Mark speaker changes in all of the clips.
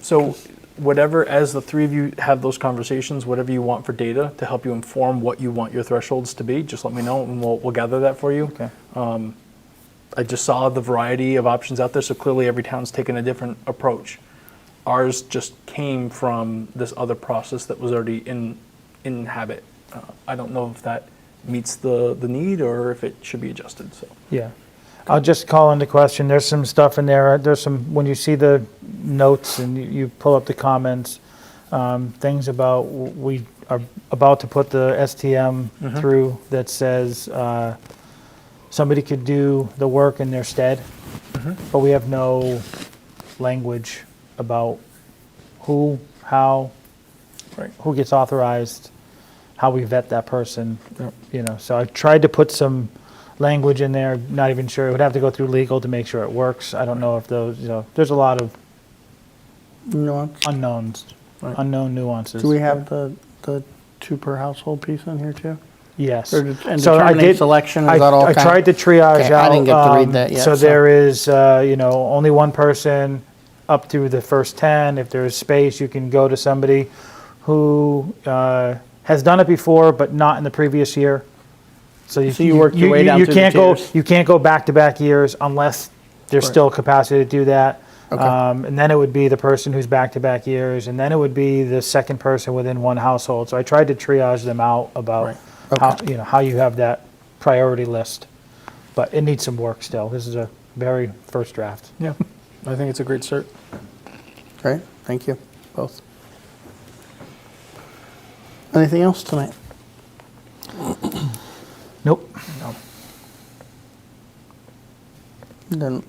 Speaker 1: So whatever, as the three of you have those conversations, whatever you want for data to help you inform what you want your thresholds to be, just let me know and we'll, we'll gather that for you.
Speaker 2: Okay.
Speaker 1: I just saw the variety of options out there, so clearly every town's taken a different approach. Ours just came from this other process that was already in, in habit. Uh, I don't know if that meets the, the need or if it should be adjusted, so.
Speaker 2: Yeah. I'll just call into question, there's some stuff in there, there's some, when you see the notes and you- you pull up the comments, um, things about, w- we are about to put the STM through that says uh, somebody could do the work in their stead, but we have no language about who, how,
Speaker 1: Right.
Speaker 2: who gets authorized, how we vet that person, you know, so I tried to put some language in there, not even sure, it would have to go through legal to make sure it works, I don't know if those, you know, there's a lot of
Speaker 3: nuance.
Speaker 2: unknowns,
Speaker 1: Right.
Speaker 2: unknown nuances.
Speaker 3: Do we have the, the two per household piece in here too?
Speaker 2: Yes.
Speaker 3: Or det- and
Speaker 2: So I
Speaker 3: determining
Speaker 2: did-
Speaker 3: selection, is
Speaker 2: I-
Speaker 3: that all
Speaker 2: I
Speaker 3: kind-
Speaker 2: tried to triage
Speaker 3: Okay, I
Speaker 2: out.
Speaker 3: didn't get to read
Speaker 2: um,
Speaker 3: that yet,
Speaker 2: So
Speaker 3: so-
Speaker 2: there is, uh, you know, only one person up through the first 10. If there is space, you can go to somebody who uh, has done it before, but not in the previous year.
Speaker 3: So you worked your way down
Speaker 2: you
Speaker 3: through the
Speaker 2: can't go-
Speaker 3: tiers.
Speaker 2: You can't go back-to-back years unless there's
Speaker 3: Right.
Speaker 2: still capacity to do that.
Speaker 3: Okay.
Speaker 2: Um, And then it would be the person who's back-to-back years, and then it would be the second person within one household. So I tried to triage them out about
Speaker 1: Right.
Speaker 2: how, you know, how you have that priority list. But it needs some work still. This is a very first draft.
Speaker 1: Yeah, I think it's a great cert.
Speaker 3: Great, thank you, both. Anything else tonight?
Speaker 2: Nope.
Speaker 3: Then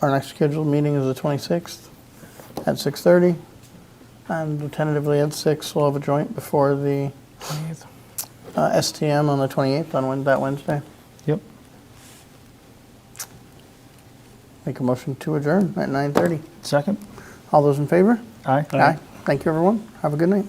Speaker 3: our next scheduled meeting is the 26th at 6:30. And tentatively at 6, we'll have a joint before the uh, STM on the 28th on Wed- that Wednesday.
Speaker 2: Yep.
Speaker 3: Make a motion to adjourn at 9:30.
Speaker 2: Second?
Speaker 3: All those in favor?
Speaker 2: Aye.
Speaker 3: Thank you, everyone. Have a good night.